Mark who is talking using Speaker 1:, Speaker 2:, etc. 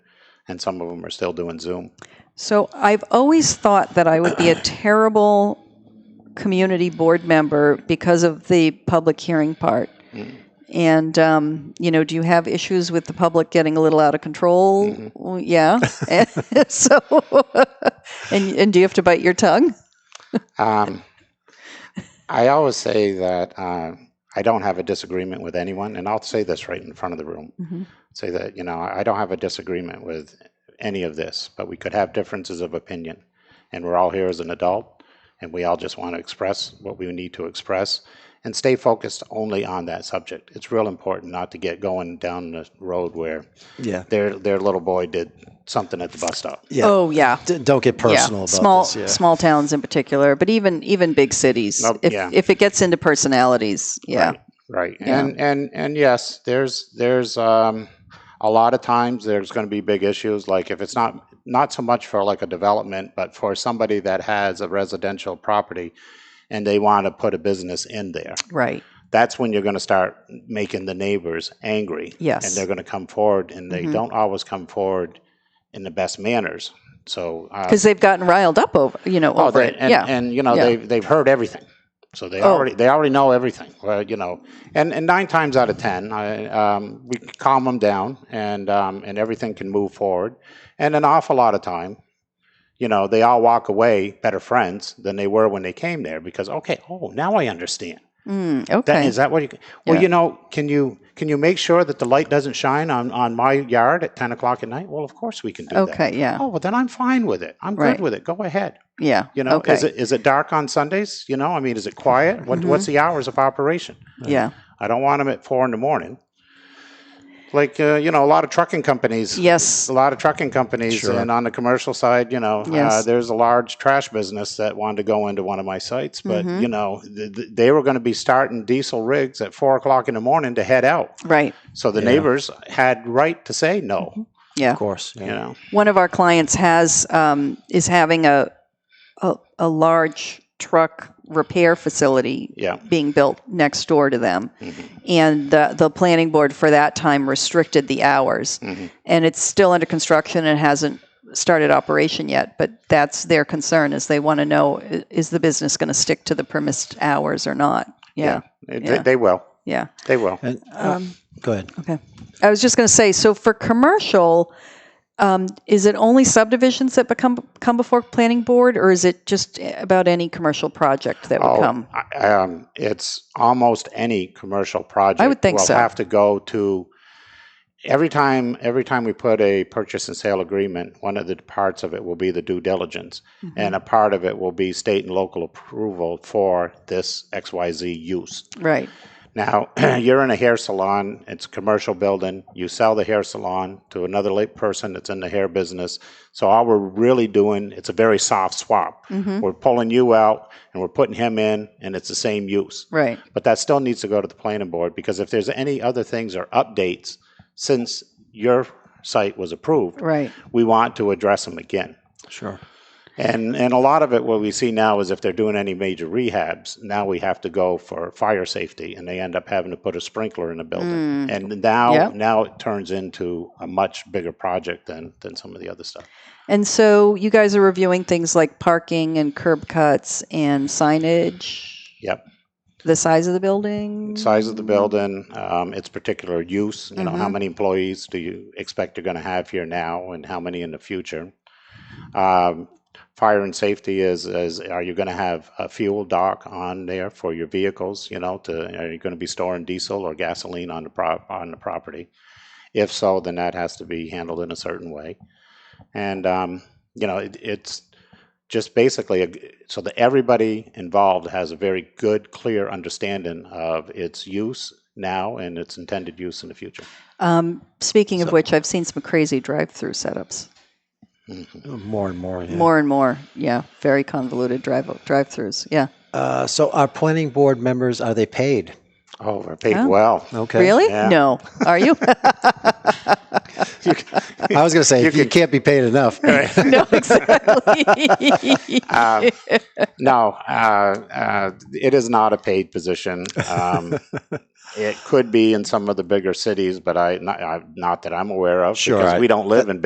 Speaker 1: and some of them are still doing Zoom.
Speaker 2: So I've always thought that I would be a terrible community board member because of the public hearing part.
Speaker 1: Mm-hmm.
Speaker 2: And, um, you know, do you have issues with the public getting a little out of control?
Speaker 1: Mm-hmm.
Speaker 2: Well, Yeah. And so, and, and do you have to bite your tongue?
Speaker 1: Um, I always say that uh, I don't have a disagreement with anyone, and I'll say this right in front of the room.
Speaker 2: Mhm.
Speaker 1: Say that, you know, I don't have a disagreement with any of this, but we could have differences of opinion. And we're all here as an adult, and we all just want to express what we need to express and stay focused only on that subject. It's real important not to get going down the road where
Speaker 3: Yeah.
Speaker 1: their their little boy did something at the bus stop.
Speaker 3: Yeah.
Speaker 2: Oh, yeah.
Speaker 3: D- don't get personal
Speaker 2: yeah.
Speaker 3: about
Speaker 2: small
Speaker 3: this. Yeah.
Speaker 2: small towns in particular, but even even big cities.
Speaker 1: Nope,
Speaker 2: if
Speaker 1: yeah.
Speaker 2: if it gets into personalities, yeah.
Speaker 1: Right, Right.
Speaker 2: Yeah.
Speaker 1: And and and yes, there's there's um a lot of times there's going to be big issues like if it's not not so much for like a development but for somebody that has a residential property and they want to put a business in there.
Speaker 2: Right.
Speaker 1: That's when you're going to start making the neighbors angry.
Speaker 2: Yes.
Speaker 1: And they're going to come forward and they
Speaker 2: Mhm.
Speaker 1: don't always come forward in the best manners. So uh,
Speaker 2: Because they've gotten riled up over you know
Speaker 1: Oh,
Speaker 2: over
Speaker 1: they,
Speaker 2: it.
Speaker 1: and,
Speaker 2: yeah.
Speaker 1: and you know
Speaker 2: Yeah.
Speaker 1: they they've heard everything, so they
Speaker 2: Oh.
Speaker 1: already they already know everything. Well, you know, and, and nine times out of ten, I, um, we can calm them down, and um, and everything can move forward. And an awful lot of time, you know, they all walk away better friends than they were when they came there because okay, oh, now I understand.
Speaker 2: Mm,
Speaker 1: That is
Speaker 2: okay.
Speaker 1: that what you? Well,
Speaker 2: Yeah.
Speaker 1: you know, can you can you make sure that the light doesn't shine on on my yard at ten o'clock at night? Well, of course we can do that.
Speaker 2: okay. Yeah.
Speaker 1: Oh, well, then I'm fine with it. I'm
Speaker 2: Right.
Speaker 1: good with it. Go ahead.
Speaker 2: yeah.
Speaker 1: You know,
Speaker 2: Okay. Mm-hmm.
Speaker 1: is it is it dark on Sundays? You know, I mean, is it quiet? What what's the hours of operation?
Speaker 2: yeah.
Speaker 1: I don't want them at four in the morning. Like uh, you know, a lot of trucking companies.
Speaker 2: Yes.
Speaker 1: A lot of trucking companies,
Speaker 3: Sure.
Speaker 1: and on the commercial side, you know, uh,
Speaker 2: Yes.
Speaker 1: there's a large trash business that wanted to go into one of my sites, but
Speaker 2: Mhm.
Speaker 1: you know, th- th- they were going to be starting diesel rigs at four o'clock in the morning to head out.
Speaker 2: Right.
Speaker 1: So the
Speaker 3: Yeah.
Speaker 1: neighbors had right to say no.
Speaker 2: Yeah.
Speaker 3: Of course. Yeah.
Speaker 1: You know,
Speaker 2: One of our clients has um, is having a, a a large truck repair facility
Speaker 1: yeah,
Speaker 2: being built next door to them.
Speaker 1: Mhm.
Speaker 2: And the, the planning board for that time restricted the hours.
Speaker 1: Mhm.
Speaker 2: And it's still under construction and hasn't started operation yet. But that's their concern is they want to know, i- is the business going to stick to the permissed hours or not? Yeah.
Speaker 1: They-
Speaker 2: Yeah.
Speaker 1: They, they will.
Speaker 2: Yeah.
Speaker 1: They will.
Speaker 3: And um, go ahead.
Speaker 2: I was just going to say, so for commercial, um, is it only subdivisions that become come before planning board, or is it just about any commercial project that would come?
Speaker 1: Oh, I- Um, it's almost any commercial project.
Speaker 2: I would think
Speaker 1: will
Speaker 2: so.
Speaker 1: have to go to every time. Every time we put a purchase and sale agreement, one of the parts of it will be the due diligence,
Speaker 2: Mm-hmm.
Speaker 1: and a part of it will be state and local approval for this X Y Z use.
Speaker 2: Right.
Speaker 1: Now, you're in a hair salon, it's a commercial building, you sell the hair salon to another late person that's in the hair business. So all we're really doing, it's a very soft swap. We're pulling you out and we're putting him in and it's the same use.
Speaker 2: Right.
Speaker 1: But that still needs to go to the planning board because if there's any other things or updates since your site was approved,
Speaker 2: Right.
Speaker 1: we want to address them again.
Speaker 3: Sure.
Speaker 1: And and a lot of it, what we see now is if they're doing any major rehabs, now we have to go for fire safety, and they end up having to put a sprinkler in the building. And now
Speaker 2: Yep.
Speaker 1: now it turns into a much bigger project than than some of the other stuff.
Speaker 2: And so you guys are reviewing things like parking and curb cuts and signage,
Speaker 1: Yep,
Speaker 2: the size of the building,
Speaker 1: size of the building, um, its particular use. You know, how
Speaker 2: Mhm.
Speaker 1: many employees do you expect you're going to have here now, and how many in the future? Um, fire and safety is is are you going to have a fuel dock on there for your vehicles you know to are you going to be storing diesel or gasoline on the prop on the property if so then that has to be handled in a certain way and um, you know it, it's just basically a g so that everybody involved has a very good clear understanding of its use now and its intended use in the future
Speaker 2: Um, speaking of
Speaker 3: So-
Speaker 2: which, I've seen some crazy drive-through setups.
Speaker 1: Mhm.
Speaker 3: More and more. Yeah.
Speaker 2: More and more, yeah, very convoluted drive drive-throughs. Yeah.
Speaker 3: Uh, so our planning board members are they paid?
Speaker 1: oh we're paid
Speaker 2: Oh.
Speaker 1: well
Speaker 3: Okay.
Speaker 2: Really?
Speaker 1: Yeah.
Speaker 2: No. Are you?
Speaker 3: I was going to say
Speaker 1: You
Speaker 3: you,
Speaker 1: could-
Speaker 3: can't be paid enough.
Speaker 2: no, exactly.
Speaker 1: Um, no, uh, uh, it is not a paid position. Um, it could be in some of the bigger cities, but I not, I, not that I'm aware of
Speaker 3: Sure,
Speaker 1: because
Speaker 3: I-
Speaker 1: we don't live in